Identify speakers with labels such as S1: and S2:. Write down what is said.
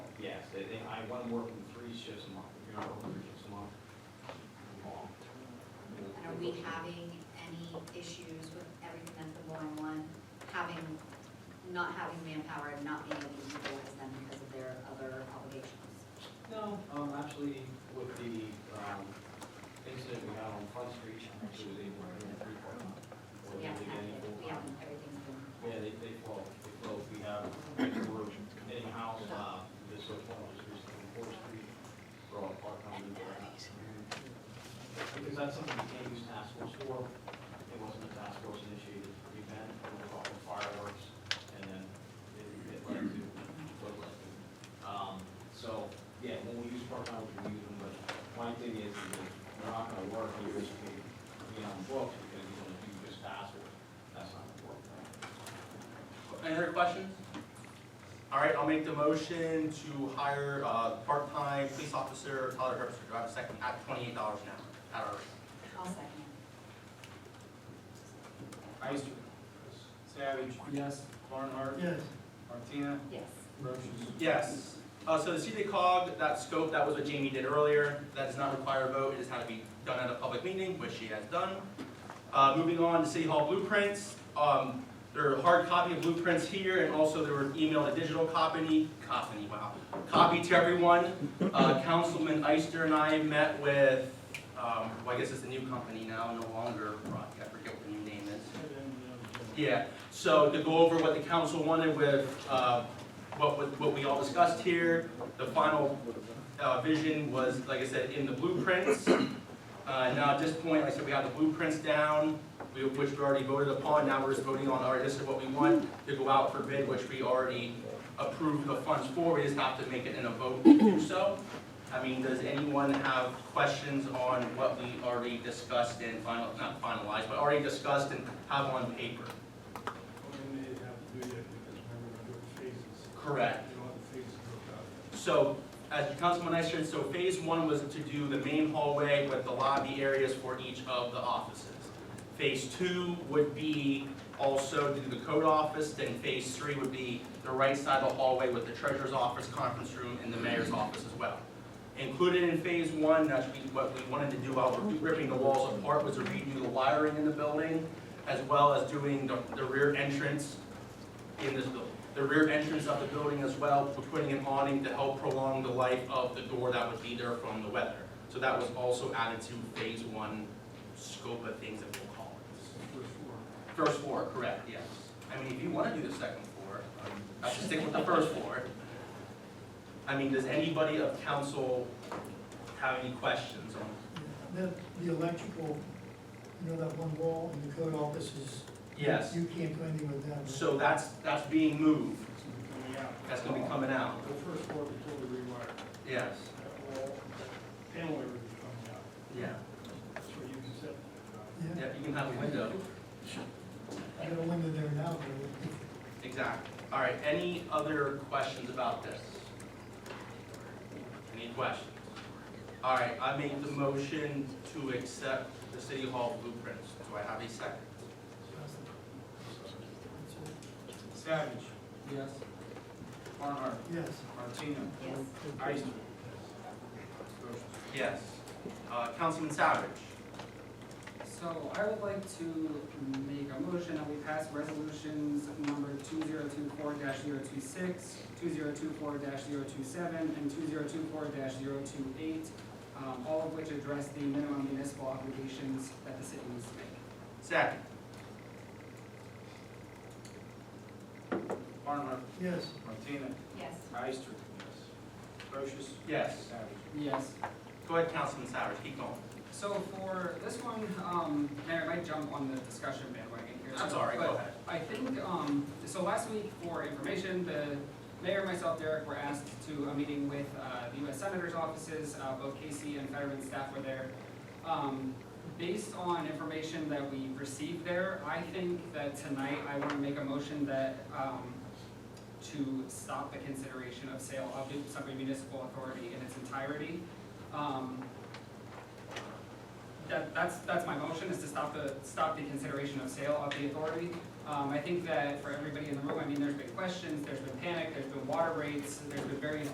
S1: Yes, they, they, I want them working three shifts a month, if you're not working three shifts a month. you're wrong.
S2: And are we having any issues with everything that's been going on, having, not having manpower and not being able to utilize them because of their other obligations?
S1: No, um, actually, with the, um, incident we had on Front Street, actually was able to get three part time.
S2: So we haven't, had it. we haven't, everything's been,
S1: Yeah, they, they flow, they flow, we have, we're in-house, uh, this was one of those recently, Fourth Street, for all part-time. employees. Because that's something we can't use task force for, it wasn't a task force initiated event, it was off of fireworks, and then it, it led to, what led to. Um, so, yeah, when we use part-time, we can use them, but my thing is, is they're not gonna work, you just, you know, books, because you're gonna do just task force, that's not gonna work.
S3: Any other questions? All right, I'll make the motion to hire, uh, part-time police officer Tyler Herbst, do I have a second, at twenty-eight dollars an hour, at our,
S2: I'll second.
S4: Ister. Savage. Yes. Barnhart. Yes. Martina.
S2: Yes,
S4: Brochus.
S3: yes. Uh, so the CD cog, that scope, that was what Jamie did earlier, that does not require a vote, it just had to be done at a public meeting, which she has done. Uh, moving on to City Hall blueprints, um, there are hard copy of blueprints here, and also there were emailed a digital copy, copy, wow, copy to everyone. Uh, Councilman Ister and I met with, um, well, I guess it's a new company now, no longer, Rock- I forget what the new name is. Yeah, so to go over what the council wanted with, uh, what, what- what we all discussed here, the final, uh, vision was, like I said, in the blueprints. Uh, now at this point, like I said, we have the blueprints down, we- which we already voted upon, now we're just voting on, all right, this is what we want to go out for bid, which we already approved the funds for, we just have to make it in a vote to do so. I mean, does anyone have questions on what we already discussed and final, not finalized, but already discussed and have on paper?
S5: When they have to do that, because remember, we're doing phases,
S3: Correct.
S5: you know, the phases broke out.
S3: So, as Councilman I said, so phase one was to do the main hallway with the lobby areas for each of the offices. Phase two would be also do the code office, then phase three would be the right side of the hallway with the treasurer's office, conference room, and the mayor's office as well. Included in phase one, that's we- what we wanted to do while we're ripping the walls apart, was to redo the wiring in the building, as well as doing the, the rear entrance in this building. The rear entrance of the building as well, we're putting an awning to help prolong the life of the door that would be there from the weather. So that was also added to phase one scope of things that we'll call it.
S5: First floor.
S3: First floor, correct, yes. I mean, if you wanna do the second floor, um, I should stick with the first floor. I mean, does anybody of council have any questions on?
S6: The, the electrical, you know, that one wall in the code office is.
S3: Yes,
S6: You can't do anything with that. right?
S3: so that's, that's being moved,
S5: It's gonna be
S3: that's gonna be coming
S5: coming out.
S3: out,
S5: The first floor we totally rewired,
S3: yes,
S5: that wall, that panel area would be coming out,
S3: yeah,
S5: that's where you can set. it.
S3: yeah, you can have a window.
S6: I got a window there now, but it-
S3: Exactly. All right, any other questions about this? Any questions? All right, I make the motion to accept the city hall blueprints. Do I have a second?
S4: Savage.
S3: Yes.
S4: Barnhart.
S6: Yes,
S4: Martina.
S2: yes,
S4: Ister. Brochus.
S3: Yes. Uh, Councilman Savage?
S7: So I would like to make a motion that we pass resolutions number two zero two four 26 two zero two four 27 and two zero two four 28 um, all of which address the minimum municipal obligations that the city needs to make.
S3: Second.
S4: Barnhart.
S6: yes,
S4: Martina.
S2: yes.
S4: Ister. Brochus.
S3: Yes.
S4: Savage.
S7: Yes.
S3: Go ahead, Councilman Savage, keep going.
S7: So for this one, um, Mayor, I might jump on the discussion bandwagon here.
S3: That's
S7: too,
S3: all right, go
S7: but
S3: ahead.
S7: I think, um, so last week for information, the mayor, myself, Derek, were asked to a meeting with, uh, the US Senator's offices, uh, both Casey and Fetterman staff were there. Um, based on information that we received there, I think that tonight I wanna make a motion that, um, to stop the consideration of sale of the Sunbury Municipal Authority in its entirety. Um, that, that's, that's my motion, is to stop the, stop the consideration of sale of the authority. Um, I think that for everybody in the room, I mean, there's been questions, there's been panic, there's been water rates, there's been various